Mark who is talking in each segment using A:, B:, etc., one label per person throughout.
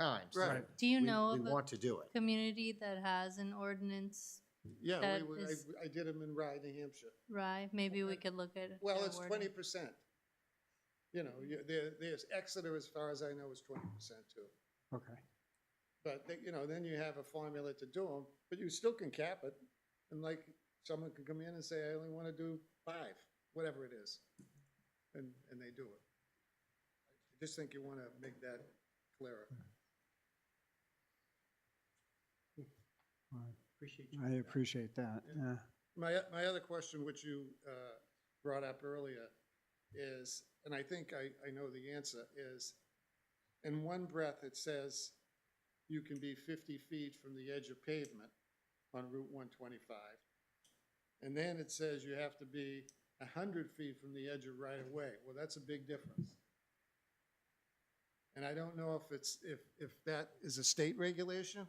A: times.
B: Right.
A: So
C: Do you
B: we-
C: know of
B: We
C: a
B: want to do it.
C: community that has an ordinance,
A: Yeah,
C: That
A: we, we-
C: is-
A: I, I did them in Rye, New Hampshire.
C: Rye? Maybe we could look at.
A: Well,
C: their
A: it's
C: wording.
A: twenty percent. You know, you, there, there's Exeter, as far as I know, is twenty percent too.
B: Okay.
A: But, they- you know, then you have a formula to do them, but you still can cap it. And like, someone can come in and say, I only want to do five, whatever it is. And, and they do it. I just think you want to make that clearer.
B: All right.
D: Appreciate
B: I appreciate that, yeah.
A: My, my other question, which you uh, brought up earlier, is, and I think I, I know the answer, is in one breath, it says you can be 50 feet from the edge of pavement on Route 125. And then it says you have to be 100 feet from the edge of right-of-way. Well, that's a big difference. And I don't know if it's, if, if that is a state regulation?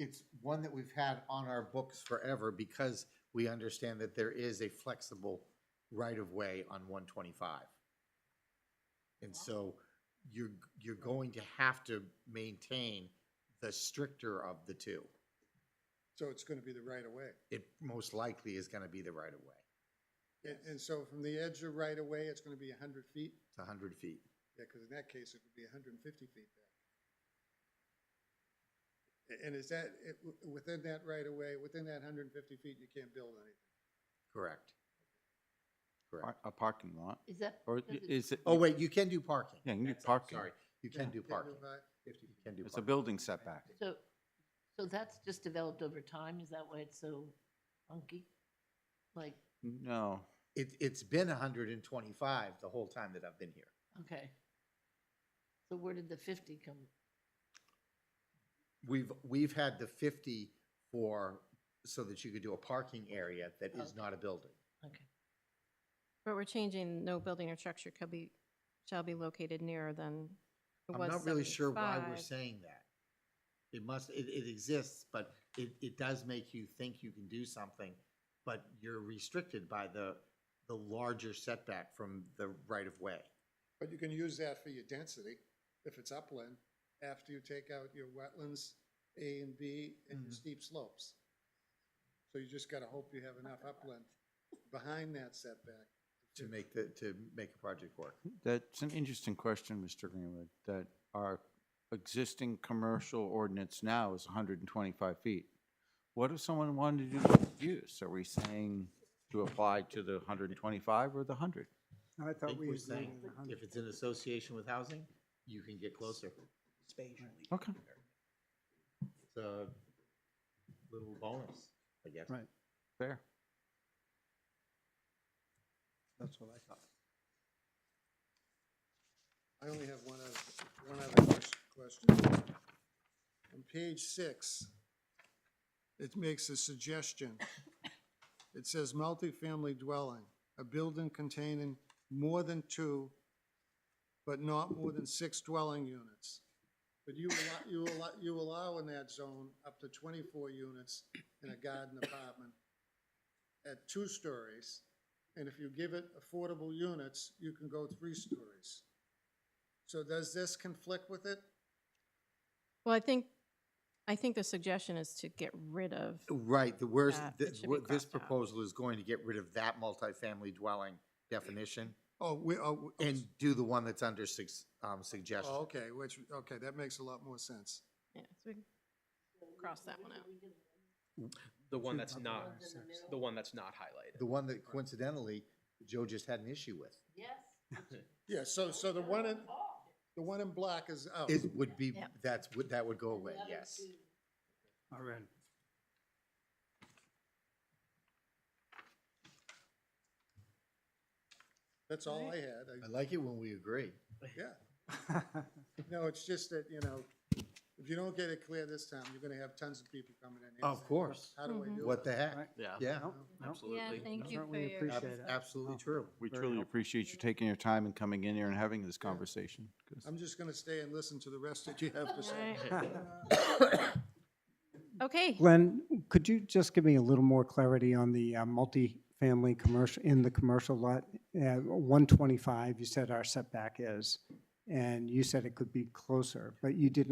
D: It's one that we've had on our books forever because we understand that there is a flexible right-of-way on one twenty-five. And so you're, you're going to have to maintain the stricter of the two.
A: So it's going to be the right-of-way.
D: It most likely is gonna be the right-of-way.
A: And, and so from the edge of right away, it's gonna be hundred feet?
D: It's a hundred feet.
A: Yeah, because in that case, it would be hundred and fifty feet back. A- And is that, it- w- within that right away, within that hundred and fifty feet, you can't build anything?
D: Correct. Correct.
E: Par- A parking lot,
F: Is that?
E: or
F: does
E: i-
F: it-
E: is it?
D: Oh, wait, you can do parking.
E: Yeah, you can do
D: That's- I'm
E: parking.
D: Sorry, you can do
A: Can't
D: parking.
A: provide-
D: You can do
E: It's a
D: parking.
E: building setback.
F: So, so that's just developed over time? Is that why it's so funky? Like,
E: No,
D: It, it's been hundred and twenty-five the whole time that I've been here.
F: okay. So where did the fifty come?
D: We've, we've had the fifty for, so that you could do a parking area that is not a building.
F: Okay.
G: But we're changing, no building or structure could be, shall be located nearer than it
D: I'm
G: was
D: not really sure why we're
G: 75.
D: saying that. It must, it, it exists, but it, it does make you think you can do something, but you're restricted by the, the larger setback from the right of way.
A: But you can use that for your density, if it's upland, after you take out your wetlands, A and B, and your
D: Mhm.
A: steep slopes. So you just gotta hope you have enough upland behind that setback.
D: To make the, to make a project work.
E: that's an interesting question, Mr. Greenwood, that our existing commercial ordinance now is hundred and twenty-five feet. What if someone wanted to do mixed use? Are we saying to apply to the hundred and twenty-five or the hundred?
B: I
D: I
B: thought
D: think
B: we
D: we're
B: agreed
D: saying,
B: on the hundred.
D: if it's in association with housing, you can get closer.
E: Okay.
D: It's a little bonus, I guess.
B: Right.
E: Fair.
B: That's what I thought.
A: I only have one other, one other ques- question. On page six, it makes a suggestion. It says multifamily dwelling, a building containing more than two, but not more than six dwelling units. But you allow, you allow, you allow in that zone up to twenty-four units in a garden apartment at two stories. And if you give it affordable units, you can go three stories. So does this conflict with it?
G: Well, I think, I think the suggestion is to get rid of,
D: Right, the worst,
G: That it
D: this,
G: should be
D: this
G: crossed out.
D: proposal is going to get rid of that multifamily dwelling definition
A: Oh, we, oh. we-
D: and do the one that's under six, um, suggestion.
A: Oh, okay, which, okay, that makes a lot more sense.
G: yeah, so we can cross that one out.
H: The one
B: Two
H: that's
B: upper
H: not,
B: or six.
H: the one that's not highlighted.
D: The one that coincidentally Joe just had an issue with
F: Yes.
A: Yeah, so, so the one in, the one in black is
B: Oh.
A: out.
D: is, would be,
G: Yeah.
D: that's, would, that would go away, yes.
B: All right.
A: That's all I had. I-
D: I like it when we agree.
A: Yeah, no, it's just that, you know, if you don't get it clear this time, you're gonna have tons of people coming in. here
D: Of
A: saying,
D: course.
A: How do I do it?
D: What the heck?
B: Right.
D: Yeah,
B: Nope, nope.
C: Yeah, thank you for
B: Certainly
C: your.
D: ab-
B: appreciate it.
D: absolutely true.
E: We
B: Very
E: truly
B: helpful.
E: appreciate you taking your time and coming in here and having this conversation. 'cause-
A: I'm just gonna stay and listen to the rest that you have to say.
G: Okay,
B: Glenn, could you just give me a little more clarity on the uh, multifamily commercial, in the commercial lot? Uh, 125, you said our setback is, and you said it could be closer, but you did